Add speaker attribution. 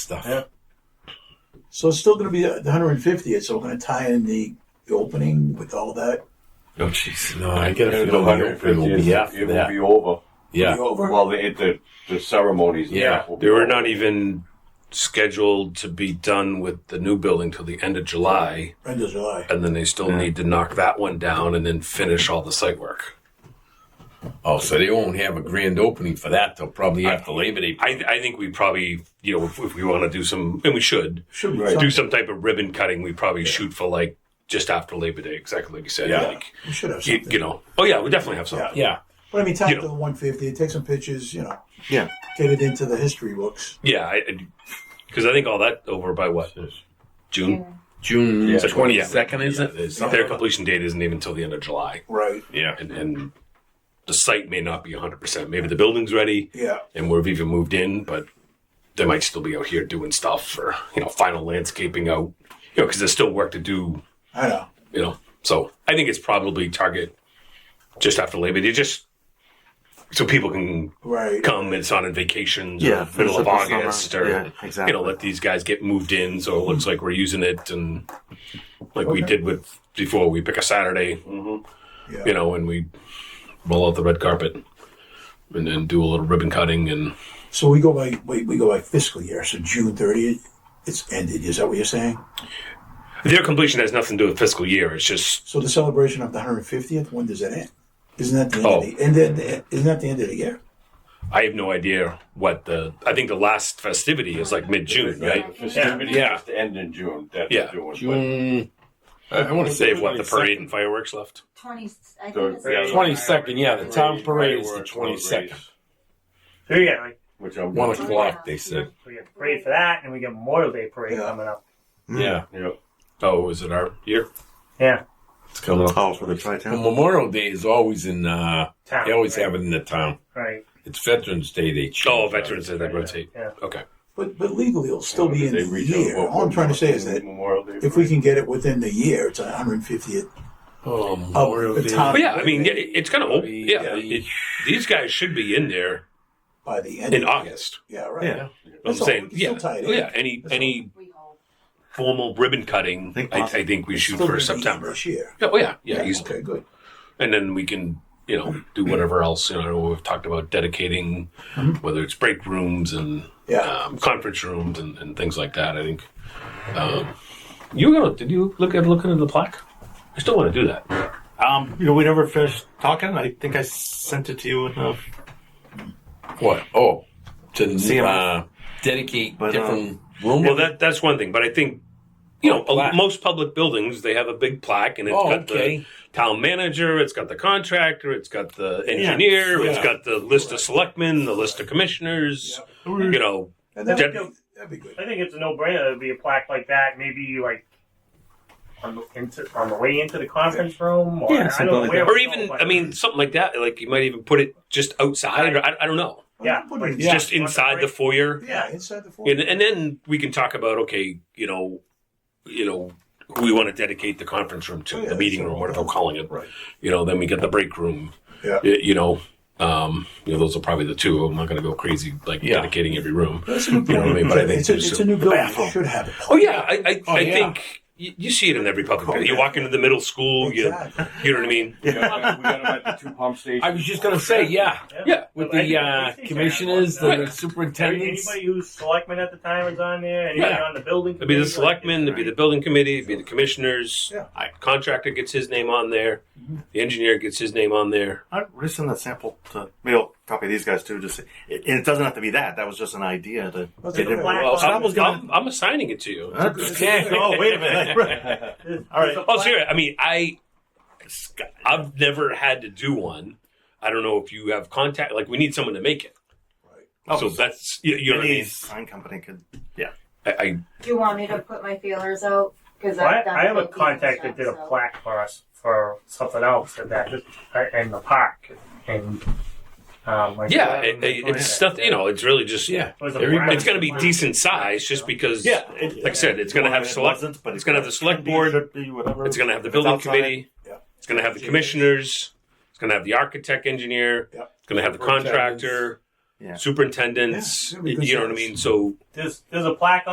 Speaker 1: stuff.
Speaker 2: Yeah. So it's still going to be the 150th. So we're going to tie in the, the opening with all that.
Speaker 1: Oh jeez.
Speaker 3: No, I get a
Speaker 4: And the
Speaker 3: feeling it will be
Speaker 4: 150th,
Speaker 3: after
Speaker 4: it will
Speaker 3: that.
Speaker 4: be over.
Speaker 3: Yeah.
Speaker 2: Be over.
Speaker 4: Well, the, the, the ceremonies. and
Speaker 3: Yeah,
Speaker 4: stuff will be
Speaker 3: they were
Speaker 4: over.
Speaker 3: not even scheduled to be done with the new building till the end of July,
Speaker 2: end of July.
Speaker 3: and then they still need to knock that one down and then finish all the site work.
Speaker 1: Oh, so they won't have a grand opening for that. They'll probably have to Labor Day.
Speaker 3: I, I think we probably, you know, if, if we want to do some, and we should
Speaker 2: Should be
Speaker 3: do
Speaker 2: something.
Speaker 3: some type of ribbon cutting, we probably shoot for like just after Labor Day, exactly like you said.
Speaker 1: Yeah.
Speaker 3: Like,
Speaker 2: We should have
Speaker 3: you,
Speaker 2: something.
Speaker 3: you know, oh yeah, we definitely have something.
Speaker 1: Yeah.
Speaker 2: but I mean, tie
Speaker 3: you
Speaker 2: it to
Speaker 3: know.
Speaker 2: the 150. Take some pictures. You know,
Speaker 4: Yeah.
Speaker 2: get it into the history books.
Speaker 3: Yeah, I because I think all that over by what June.
Speaker 1: June
Speaker 4: Yeah.
Speaker 1: twenty second, is
Speaker 3: Yeah,
Speaker 1: it?
Speaker 3: Their completion date isn't even until the end of July,
Speaker 2: Right.
Speaker 1: Yeah.
Speaker 3: and and the site may not be 100. percent Maybe the building's ready,
Speaker 2: Yeah.
Speaker 3: and we've even moved in, but they might still be out here doing stuff or you know final landscaping out, you know, because there's still work to do,
Speaker 2: I know.
Speaker 3: you know. So I think it's probably target just after Labor Day, just so people can
Speaker 2: Right.
Speaker 3: come. It's not on vacation.
Speaker 5: Yeah,
Speaker 3: Yeah, middle of
Speaker 5: finish up the
Speaker 3: August,
Speaker 5: summer.
Speaker 3: or
Speaker 5: Yeah, exactly. Mm-hmm.
Speaker 3: you know, let these guys get moved in, so it looks like we're using it, and like we did with before, we pick a Saturday,
Speaker 6: Mm-hmm.
Speaker 2: Yeah.
Speaker 3: you know, and we roll out the red carpet, and then do a little ribbon cutting, and
Speaker 2: So we go by we, we go by fiscal year. So June 30th, it's ended. Is that what you're saying?
Speaker 3: their completion has nothing to do with fiscal year. It's just
Speaker 2: So the celebration of the 150th. When does that end? Isn't that the end
Speaker 3: Oh.
Speaker 2: of the end? Of the, isn't that the end of the year?
Speaker 3: I have no idea what the I think the last festivity is like mid June,
Speaker 4: The
Speaker 3: right?
Speaker 4: festivities
Speaker 3: Yeah.
Speaker 4: just end in June. That's
Speaker 3: Yeah.
Speaker 4: June. but-
Speaker 1: June. I, want to
Speaker 3: They have what the parade and fireworks left.
Speaker 7: Twenty. I
Speaker 4: So-
Speaker 7: think it's the-
Speaker 1: 22nd, yeah, the town parade is the
Speaker 4: Fireworks,
Speaker 1: 22nd.
Speaker 6: So we got like
Speaker 4: Which I'm
Speaker 1: One o'clock, they said.
Speaker 6: we got parade for that, and we got Memorial Day parade
Speaker 2: Yeah.
Speaker 6: coming up.
Speaker 1: Yeah.
Speaker 4: Yeah.
Speaker 3: Oh, is it our year?
Speaker 6: Yeah,
Speaker 1: It's coming up.
Speaker 5: Oh, for the
Speaker 1: Well,
Speaker 5: tri-town.
Speaker 1: Memorial Day is always in. uh
Speaker 6: town.
Speaker 1: They always
Speaker 6: right?
Speaker 1: have it in the town.
Speaker 6: Right.
Speaker 1: It's Veterans Day. They change
Speaker 3: Oh,
Speaker 1: it.
Speaker 3: Veterans Day they rotate.
Speaker 6: Yeah.
Speaker 3: Okay.
Speaker 2: But but legally, it'll still be in
Speaker 4: They
Speaker 2: the
Speaker 4: reach
Speaker 2: year.
Speaker 4: out-
Speaker 2: All I'm trying to say is that
Speaker 4: Memorial Day
Speaker 2: if we
Speaker 4: parade.
Speaker 2: can get it within the year, it's 150th.
Speaker 1: Oh,
Speaker 2: the
Speaker 1: Memorial Day.
Speaker 2: town-
Speaker 3: But yeah, I mean, yeah, it- it's kind of open. Yeah,
Speaker 1: Yeah.
Speaker 3: it- these guys should be in there
Speaker 2: by the end
Speaker 3: in
Speaker 2: of,
Speaker 3: August.
Speaker 2: Yeah, right.
Speaker 5: Yeah.
Speaker 3: I'm
Speaker 2: That's all,
Speaker 3: saying,
Speaker 2: we can
Speaker 3: yeah, Oh,
Speaker 2: still tie it in.
Speaker 3: yeah. Any
Speaker 2: That's
Speaker 3: any
Speaker 7: We hope.
Speaker 3: formal ribbon cutting,
Speaker 5: Think
Speaker 3: I,
Speaker 5: possibly.
Speaker 3: I think we shoot
Speaker 2: Still
Speaker 3: for
Speaker 2: gonna be
Speaker 3: September.
Speaker 2: this year.
Speaker 3: Yeah, oh yeah, yeah. he's-
Speaker 2: okay, good.
Speaker 3: and then we can you know do whatever else. You know, we've talked about dedicating, whether it's break rooms and
Speaker 2: Yeah.
Speaker 3: um, conference rooms and, and things like that. I think. Um, you were gonna? Did you look at looking at the plaque? I still want to do that.
Speaker 5: Um, you know, we never finished talking. I think I sent it to you in the
Speaker 1: What? Oh, to
Speaker 5: See 'em.
Speaker 1: uh, dedicate
Speaker 5: But, um,
Speaker 1: different room.
Speaker 3: Well, that that's one thing, but I think you know
Speaker 1: Oh, plaque.
Speaker 3: most public buildings they have a big plaque, and it's
Speaker 1: Oh,
Speaker 3: got
Speaker 1: okay.
Speaker 3: the town manager, it's got the contractor, it's got the engineer, it's
Speaker 1: yeah.
Speaker 3: got the list of selectmen, the list of commissioners. You know,
Speaker 2: And that would
Speaker 3: Deb-
Speaker 2: be, that'd be good.
Speaker 6: I think it's a no-brainer. It'd be a plaque like that. Maybe like on the into, on the way into the conference room, or
Speaker 5: Yeah,
Speaker 6: I
Speaker 5: something
Speaker 6: don't know
Speaker 5: like
Speaker 6: where
Speaker 5: that.
Speaker 3: or
Speaker 6: we go,
Speaker 3: even
Speaker 6: but-
Speaker 3: I mean something like that. Like you might even put it just outside, or I, I don't know,
Speaker 6: Yeah.
Speaker 2: Put it in-
Speaker 5: Yeah.
Speaker 3: just inside the foyer,
Speaker 2: yeah, inside the four.
Speaker 3: and and then we can talk about okay, you know, you know. Who we want to dedicate the conference room to,
Speaker 2: Oh, yeah,
Speaker 3: the meeting
Speaker 2: that's
Speaker 3: room,
Speaker 2: what
Speaker 3: whatever we're calling it.
Speaker 2: Right.
Speaker 3: You know, then we get the break room.
Speaker 2: Yeah.
Speaker 3: Y- You know, um, you know, those are probably the two. I'm not going to go crazy like
Speaker 1: Yeah.
Speaker 3: dedicating every room.
Speaker 2: That's a good
Speaker 3: You know what I mean? But I think
Speaker 2: it's, a,
Speaker 3: there's
Speaker 2: it's
Speaker 3: a-
Speaker 2: a new building. It should have it.
Speaker 3: Oh yeah, I I,
Speaker 1: Oh,
Speaker 3: I
Speaker 1: yeah.
Speaker 3: think you, you see it in every public.
Speaker 2: Oh,
Speaker 3: building. You
Speaker 2: yeah.
Speaker 3: walk into the middle school,
Speaker 2: Exactly.
Speaker 3: you you know what I mean.
Speaker 4: We got, we got 'em at the two pump stations.
Speaker 1: I was just gonna say, yeah,
Speaker 3: Yeah,
Speaker 1: with
Speaker 6: But I
Speaker 1: the
Speaker 6: think- I
Speaker 1: uh,
Speaker 6: think they're
Speaker 1: commissioners,
Speaker 6: on
Speaker 1: the
Speaker 6: that. Any-
Speaker 1: superintendents.
Speaker 6: Anybody who's selectman at the time is on there. Anybody
Speaker 1: Yeah.
Speaker 6: on the building.
Speaker 3: It'd be the
Speaker 6: committee, like,
Speaker 3: selectmen, it'd be the building committee, it'd be the commissioners.
Speaker 2: Yeah. Mm-hmm.
Speaker 3: I- Contractor gets his name on there. The engineer gets his name on there.
Speaker 5: I we'll just send the sample to maybe I'll copy these guys too. Just it, and it doesn't have to be that. That was just an idea to
Speaker 2: That's
Speaker 5: get
Speaker 2: okay.
Speaker 5: it.
Speaker 6: Well,
Speaker 3: Well,
Speaker 5: So I
Speaker 3: I'm,
Speaker 5: was gonna.
Speaker 3: I'm, I'm assigning it to you.
Speaker 5: Huh? Yeah. Oh, wait a minute. All right.
Speaker 3: Oh, serious. I mean, I, I've never had to do one. I don't know if you have contact. Like, we need someone to make it.
Speaker 5: Oh,
Speaker 3: so that's you, you know what I
Speaker 5: any
Speaker 3: mean.
Speaker 5: sign company could.
Speaker 3: I, I
Speaker 7: Do you want me to put my feelers out? Because
Speaker 6: Well, I, I have a contact that did a plaque for us for something else at that uh, in the park, and um, like
Speaker 3: yeah, it, it- it's nothing. You know, it's really just
Speaker 1: yeah,
Speaker 6: It was a
Speaker 1: There you go.
Speaker 6: plaque.
Speaker 3: It's going to be decent size, just because.
Speaker 5: Yeah. It,
Speaker 3: Like I said, it's going to have
Speaker 5: it
Speaker 3: select.
Speaker 5: wasn't, but
Speaker 3: it's
Speaker 5: it
Speaker 3: gonna have the select
Speaker 5: could be,
Speaker 3: board.
Speaker 5: should be, whatever.
Speaker 3: It's going to have the
Speaker 5: If it's
Speaker 3: building
Speaker 5: outside,
Speaker 3: committee.
Speaker 2: Yeah.
Speaker 3: It's going to have the commissioners. It's going to have the architect engineer.
Speaker 2: Yeah.
Speaker 3: It's going to have the
Speaker 1: Architect.
Speaker 3: contractor.
Speaker 8: Yeah.
Speaker 2: superintendents.
Speaker 3: Yeah, it'll be good
Speaker 2: you know what I
Speaker 3: service.
Speaker 2: mean? So
Speaker 6: There's there's a plaque